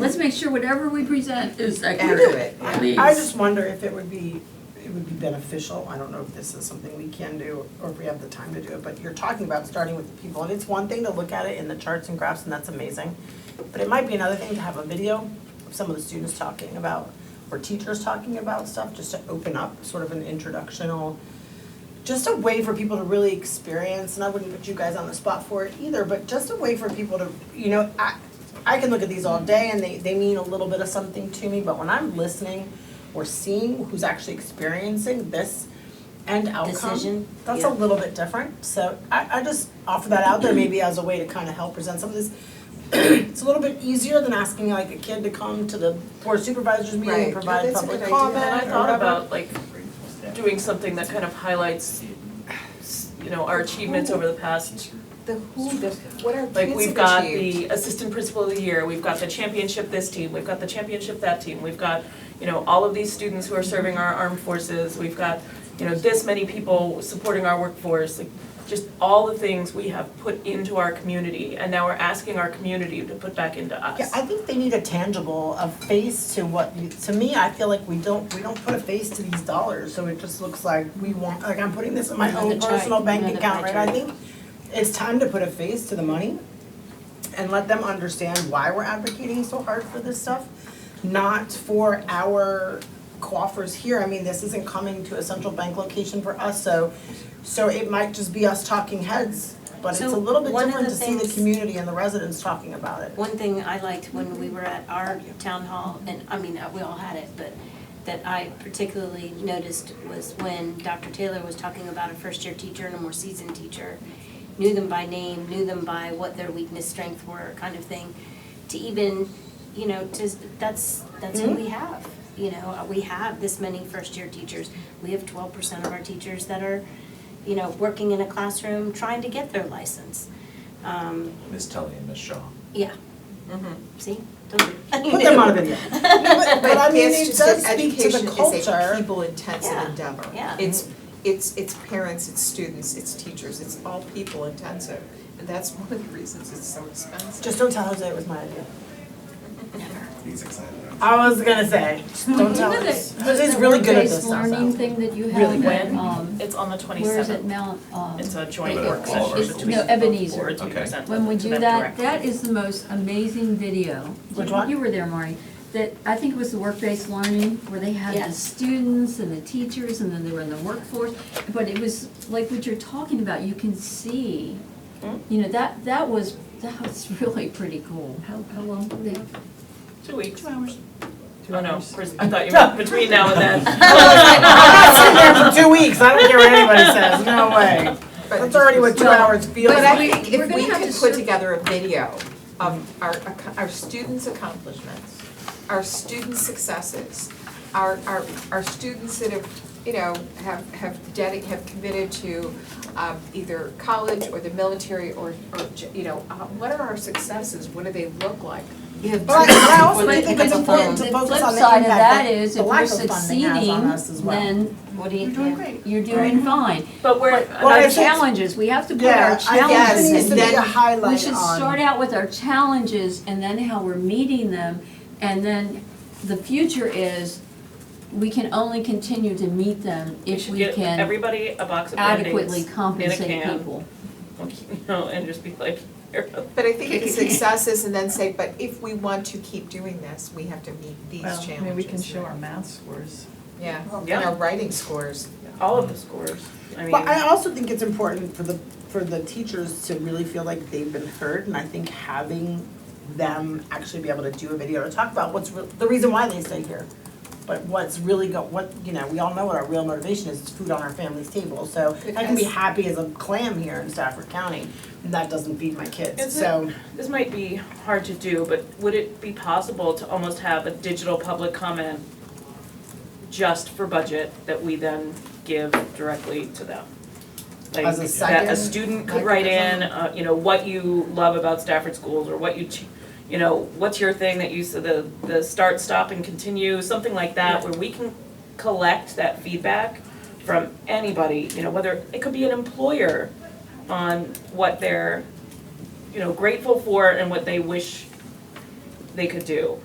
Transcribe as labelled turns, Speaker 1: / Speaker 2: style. Speaker 1: Let's make sure whatever we present is accurate,
Speaker 2: accurate.
Speaker 1: please.
Speaker 2: I just wonder if it would be, it would be beneficial, I don't know if this is something we can do, or if we have the time to do it, but you're talking about starting with the people, and it's one thing to look at it in the charts and graphs, and that's amazing. But it might be another thing to have a video of some of the students talking about, or teachers talking about stuff, just to open up sort of an introductional, just a way for people to really experience, and I wouldn't put you guys on the spot for it either, but just a way for people to, you know, I, I can look at these all day and they, they mean a little bit of something to me, but when I'm listening or seeing who's actually experiencing this end outcome,
Speaker 3: Decision,
Speaker 2: that's
Speaker 3: yeah.
Speaker 2: a little bit different. So I, I just offer that out there maybe as a way to kind of help present some of this. it's a little bit easier than asking like a kid to come to the board of supervisors meeting
Speaker 4: Right.
Speaker 2: and
Speaker 4: No,
Speaker 2: provide
Speaker 4: that's a
Speaker 2: public
Speaker 4: good idea.
Speaker 2: comment
Speaker 5: And I
Speaker 2: or
Speaker 5: thought
Speaker 2: whatever.
Speaker 5: about like doing something that kind of highlights, s- you know, our achievements over the past.
Speaker 4: The who, the, what are kids have
Speaker 5: Like we've got
Speaker 4: achieved?
Speaker 5: the assistant principal of the year, we've got the championship this team, we've got the championship that team, we've got, you know, all of these students who are serving our armed forces, we've got, you know, this many people supporting our workforce, like just all the things we have put into our community and now we're asking our community to put back into us.
Speaker 2: Yeah, I think they need a tangible, a face to what, you- to me, I feel like we don't, we don't put a face to these dollars, so it just looks like we want, like I'm putting this in my
Speaker 3: Another
Speaker 2: own
Speaker 3: try,
Speaker 2: personal bank
Speaker 3: another
Speaker 2: account, right?
Speaker 3: try.
Speaker 2: I think it's time to put a face to the money and let them understand why we're advocating so hard for this stuff, not for our coffers here. I mean, this isn't coming to a central bank location for us, so, so it might just be us talking heads, but it's a
Speaker 3: So
Speaker 2: little bit
Speaker 3: one of
Speaker 2: different
Speaker 3: the
Speaker 2: to see the
Speaker 3: things-
Speaker 2: community and the residents talking about it.
Speaker 3: One thing I liked when we were at our town hall, and I mean, uh, we all had it, but that I particularly noticed was when Dr. Taylor was talking about a first-year teacher and a more seasoned teacher, knew them by name, knew them by what their weakness, strength were, kind of thing, to even, you know, to, that's, that's who we have. You know, Uh, we have this many first-year teachers. We have twelve percent of our teachers that are, you know, working in a classroom trying to get their license. Um,
Speaker 6: Miss Tully and Miss Shaw.
Speaker 3: yeah. See? Don't do it.
Speaker 2: Put them on a video. No, But but I mean,
Speaker 4: it's
Speaker 2: it
Speaker 4: just that
Speaker 2: does speak to the
Speaker 4: Education is a
Speaker 2: culture.
Speaker 4: people-intensive
Speaker 3: Yeah,
Speaker 4: endeavor.
Speaker 3: yeah.
Speaker 4: It's, it's, it's parents, it's students, it's teachers, it's all people-intensive. And that's one of the reasons it's so expensive.
Speaker 2: Just don't tell Jose it was my idea.
Speaker 6: He's excited.
Speaker 2: I was gonna say, just don't tell
Speaker 1: You know that-
Speaker 2: us.
Speaker 1: the-
Speaker 2: Jose's really good at this
Speaker 1: The
Speaker 2: stuff.
Speaker 1: work-based learning thing that you
Speaker 2: Really
Speaker 1: have at,
Speaker 5: good.
Speaker 1: um,
Speaker 5: It's on the twenty-seventh.
Speaker 1: where is it, Mount, um,
Speaker 5: It's a joint
Speaker 6: But
Speaker 5: work
Speaker 6: all of our
Speaker 5: session
Speaker 6: schools.
Speaker 5: between
Speaker 1: No,
Speaker 5: the
Speaker 1: Ebenezer.
Speaker 5: boards. We
Speaker 6: Okay.
Speaker 5: present
Speaker 1: when we
Speaker 5: to
Speaker 1: do
Speaker 5: them
Speaker 1: that,
Speaker 5: directly.
Speaker 1: that is the most amazing video.
Speaker 2: Which one?
Speaker 1: You were there, Maury, that, I think it was the work-based learning, where they had the
Speaker 3: Yes.
Speaker 1: students and the teachers, and then they were in the workforce. But it was like what you're talking about, you can see,
Speaker 2: Hmm?
Speaker 1: you know, that, that was, that was really pretty cool. How, how long were they?
Speaker 5: Two weeks.
Speaker 1: Two hours.
Speaker 5: Oh, no, pres- I thought you meant between now and then.
Speaker 2: I'm not sitting there for two weeks, I don't care what anybody says, no way.
Speaker 4: But-
Speaker 2: That's already what two
Speaker 1: Well,
Speaker 2: hours feels
Speaker 4: But I
Speaker 2: like.
Speaker 4: think
Speaker 1: We're
Speaker 4: if
Speaker 1: gonna
Speaker 4: we
Speaker 1: have
Speaker 4: could
Speaker 1: to
Speaker 4: put
Speaker 1: sur-
Speaker 4: together a video of our, acco- our students' accomplishments, our student successes, our, our, our students that have, you know, have, have dedicated, have committed to um, either college or the military or, or, j- you know, uh, what are our successes? What do they look like?
Speaker 3: You have
Speaker 2: But I also do
Speaker 4: Well, they
Speaker 2: think
Speaker 4: pick
Speaker 2: it's
Speaker 4: up the
Speaker 2: important
Speaker 1: The
Speaker 2: to
Speaker 1: flip
Speaker 2: focus on the
Speaker 1: side of
Speaker 2: impact
Speaker 1: that
Speaker 2: that
Speaker 1: is,
Speaker 2: the
Speaker 1: if
Speaker 2: lack
Speaker 1: we're
Speaker 2: of funding has on us as
Speaker 1: succeeding,
Speaker 2: well.
Speaker 1: then what do you,
Speaker 2: You're doing great.
Speaker 1: you're doing fine.
Speaker 5: But we're,
Speaker 2: Well,
Speaker 1: Our
Speaker 2: I think-
Speaker 1: challenges, we have to put our
Speaker 2: Yeah, I
Speaker 1: challenges
Speaker 2: think
Speaker 1: in
Speaker 2: it needs to be
Speaker 4: then
Speaker 2: a highlight on.
Speaker 1: We should start out with our challenges and then how we're meeting them. And then the future is, we can only continue to meet them
Speaker 5: we
Speaker 1: if
Speaker 5: should
Speaker 1: we
Speaker 5: get
Speaker 1: can
Speaker 5: everybody a box of Band-Aids
Speaker 1: adequely
Speaker 5: in a
Speaker 1: compensate
Speaker 5: can.
Speaker 1: people.
Speaker 5: You know, and just be like, here.
Speaker 4: But I think it's successes and then say, but if we want to keep doing this, we have to meet these
Speaker 7: Well,
Speaker 4: challenges.
Speaker 7: I mean, we can show our math scores.
Speaker 4: Yeah, and
Speaker 5: Yeah.
Speaker 4: our writing scores.
Speaker 5: all of the scores, I mean.
Speaker 2: But I also think it's important for the, for the teachers to really feel like they've been heard, and I think having them actually be able to do a video to talk about what's, re- the reason why they stay here. But what's really go, what, you know, we all know what our real motivation is, it's food on our family's table, so I can be
Speaker 4: Because-
Speaker 2: happy as a clam here in Stafford County, and that doesn't feed my kids,
Speaker 5: Is it-
Speaker 2: so.
Speaker 5: This might be hard to do, but would it be possible to almost have a digital public comment just for budget that we then give directly to them? Like,
Speaker 2: As a
Speaker 5: that
Speaker 2: second
Speaker 5: a student could write in, uh, you know, what you love about Stafford schools, or what you, ch- you know, what's your thing that you, s- the, the start, stop, and continue, something like that, where we can collect that feedback from anybody, you know, whether, it could be an employer on what they're, you know, grateful for and what they wish they could do.